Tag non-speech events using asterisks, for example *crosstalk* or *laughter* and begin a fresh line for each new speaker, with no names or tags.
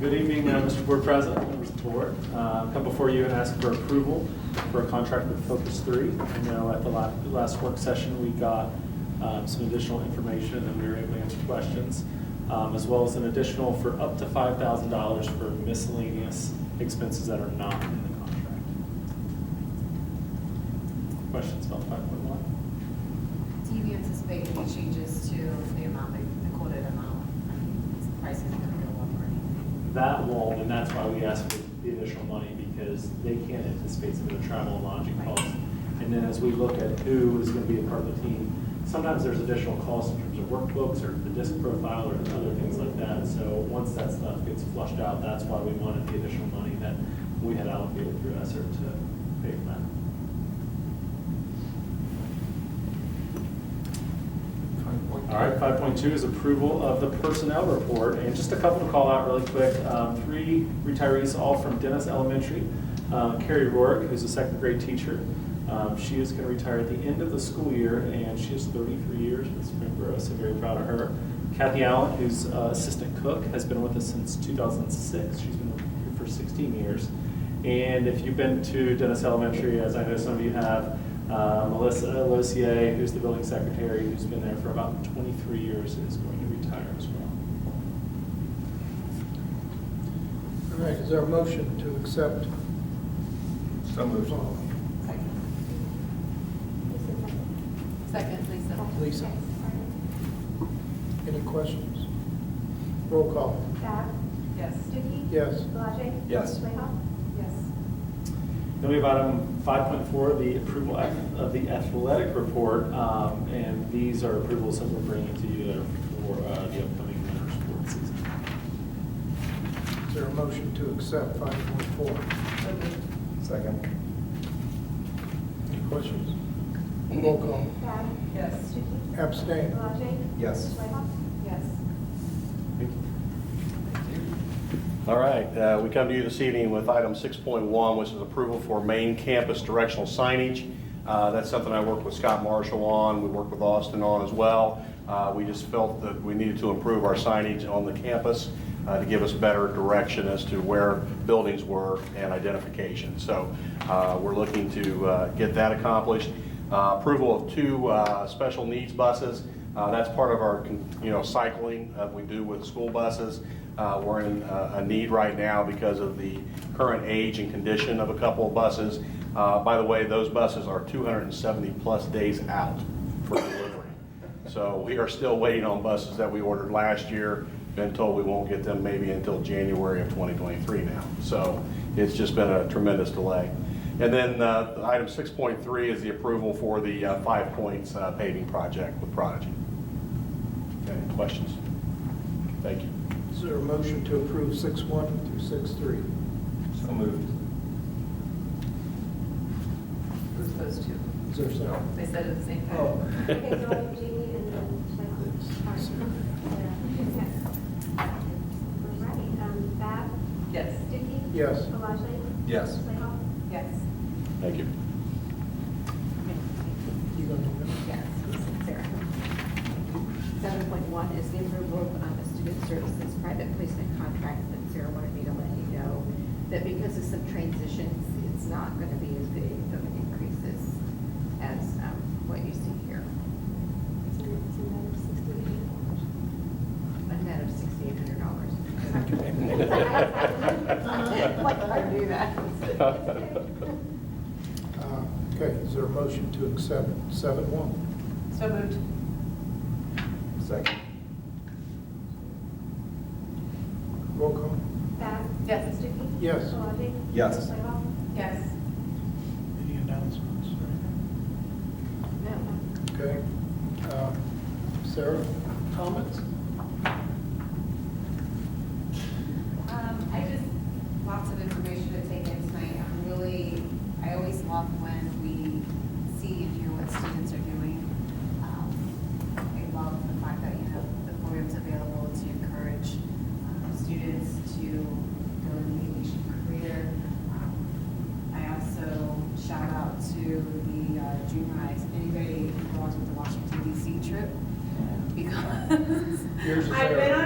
Good evening, uh, Mr. Board President, members of the board. Uh, Come before you and ask for approval for a contract with Focus 3. I know at the la- the last work session, we got um, some additional information and we were able to answer questions, um, as well as an additional for up to $5,000 for miscellaneous expenses that are not in the contract. Questions about 5.1?
Do you anticipate any changes to the amount, like the quoted amount? I mean, is the price is going to go up or anything?
That won't, and that's why we asked for the additional money, because they can't anticipate some of the travel and lodging costs. And then as we look at who is gonna be a part of the team, sometimes there's additional costs in terms of workbooks or the disc profile or other things like that. So once that stuff gets flushed out, that's why we wanted the additional money that we had allocated through ESER to pay for that. All right, five point two is approval of the personnel report, and just a couple to call out really quick. Um, Three retirees, all from Dennis Elementary. Uh, Carrie Rourke, who's a second grade teacher, um, she is going to retire at the end of the school year, and she is thirty-three years with Springboro, so very proud of her. Kathy Allen, who's uh, assistant cook, has been with us since two thousand and six, she's been here for sixteen years. And if you've been to Dennis Elementary, as I know some of you have, uh, Melissa Losier, who's the building secretary, who's been there for about 23 years, is going to retire as well.
All right, is there a motion to accept?
So moved.
Second, Lisa.
Lisa, any questions? Roll call.
Bath,
Yes.
Stuckey.
Yes.
Palage.
Yes.
Playhouse.
Yes.
Then we have item 5.4, the approval ath- of the athletic report, um, and these are approvals that we're bringing to you that are for uh, the upcoming winter sports season.
Is there a motion to accept five point four?
So moved.
Second.
Any questions? Roll call.
Bath,
Yes.
Stuckey.
Abstain.
Palage.
Yes. *laughs*
Playhouse.
Yes.
Thank you.
All right, uh, we come to you this evening with item 6.1, which is approval for main campus directional signage. Uh, That's something I worked with Scott Marshall on, we worked with Austin on as well. Uh, We just felt that we needed to improve our signage on the campus uh, to give us better direction as to where buildings were and identification. So uh, we're looking to uh, get that accomplished. Uh, Approval of two uh, special needs buses. Uh, That's part of our, con- you know, cycling that we do with school buses. Uh, We're in uh, a need right now because of the current age and condition of a couple of buses. Uh, By the way, those buses are 270-plus days out for delivery. So we are still waiting on buses that we ordered last year. Been told we won't get them maybe until January of 2023 now. So it's just been a tremendous delay. And then uh, item 6.3 is the approval for the uh, Five Points uh, paving project with Prodigy. Any questions? Thank you.
Is there a motion to approve six one through six three?
So moved.
Who's those two?
Is there a second?
They said it at the same time.
Oh.
Okay, so
*laughs*
Jamie and then Playhouse. All right, um, Bath,
Yes.
Stuckey.
Yes.
Palage.
Yes.
Playhouse.
Yes.
Thank you.
You gonna do it?
Yes, Sarah. Seven point one is the approval of um, a student services private placement contract, but Sarah wanted me to let you know that because of some transitions, it's not going to be as big of an increases as um, what you see here. A net of sixty-eight hundred dollars. *laughs* Like, I do
*laughs*
that.
Uh, Okay, is there a motion to accept seven one?
So moved.
Second.
Roll call.
Bath.
Yes.
Stuckey.
Yes.
Palage.
Yes.
Playhouse.
Yes.
Any announcements?
No.
Okay. Uh, Sarah, comments?
Um, I just, lots of information to take in tonight. I'm really, I always love when we see and hear what students are doing. Um, I love the fact that, you know, the programs available to encourage um, students to go into the aviation career. Um, I also shout out to the uh, junior highs, anybody involved with the Washington DC trip. Because
Yours is
I've
there.
been on